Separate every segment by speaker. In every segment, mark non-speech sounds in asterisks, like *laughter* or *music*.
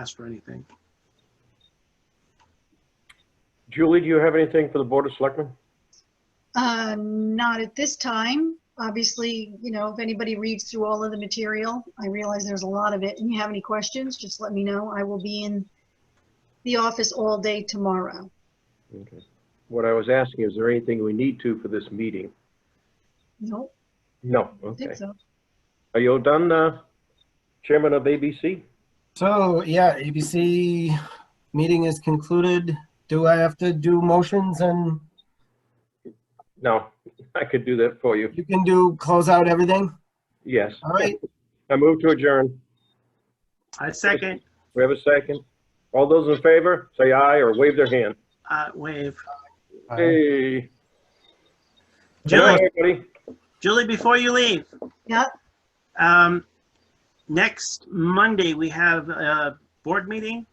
Speaker 1: asked for anything.
Speaker 2: Julie, do you have anything for the Board of Selectmen?
Speaker 3: Uh, Not at this time. Obviously, you know, if anybody reads through all of the material, I realize there's a lot of it, and you have any questions, just let me know. I will be in the office all day tomorrow.
Speaker 2: Okay. What I was asking, is there anything we need to for this meeting?
Speaker 3: No,
Speaker 2: No,
Speaker 3: I
Speaker 2: okay.
Speaker 3: think so.
Speaker 2: Are you all done, uh, Chairman of ABC?
Speaker 4: So, yeah, ABC meeting is concluded. Do I have to do motions and
Speaker 2: No, *laughs* I could do that for you.
Speaker 4: you can do, close out everything?
Speaker 2: Yes.
Speaker 4: All right,
Speaker 2: I move to adjourn.
Speaker 1: I second,
Speaker 2: We have a second. All those in favor, say aye or wave their hand.
Speaker 1: uh, wave.
Speaker 2: Hey. Good night,
Speaker 1: Julie,
Speaker 2: everybody.
Speaker 1: Julie, before you leave,
Speaker 3: Yeah,
Speaker 1: um, next Monday, we have a board meeting,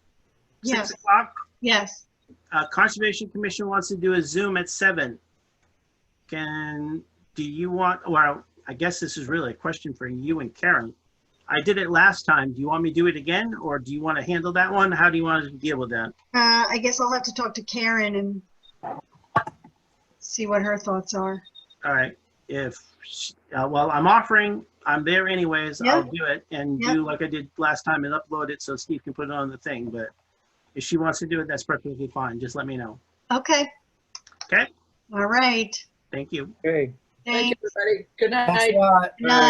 Speaker 1: six
Speaker 3: yes,
Speaker 1: o'clock.
Speaker 3: yes.
Speaker 1: Uh, Conservation Commission wants to do a Zoom at seven. Can, do you want, well, I guess this is really a question for you and Karen. I did it last time. Do you want me to do it again, or do you want to handle that one? How do you want to deal with that?
Speaker 3: Uh, I guess I'll have to talk to Karen and see what her thoughts are.
Speaker 1: All right, if, sh- uh, well, I'm offering, I'm there anyways, I'll do it and
Speaker 3: Yeah.
Speaker 1: do like I did last time and upload it so Steve can put it on the thing, but if she wants to do it, that's perfectly fine, just let me know.
Speaker 3: Okay.
Speaker 1: Okay.
Speaker 3: All right.
Speaker 1: Thank you.
Speaker 2: Hey.
Speaker 5: Thank
Speaker 3: Thanks.
Speaker 5: you, everybody. Good night.
Speaker 4: thanks a lot.
Speaker 3: Good night.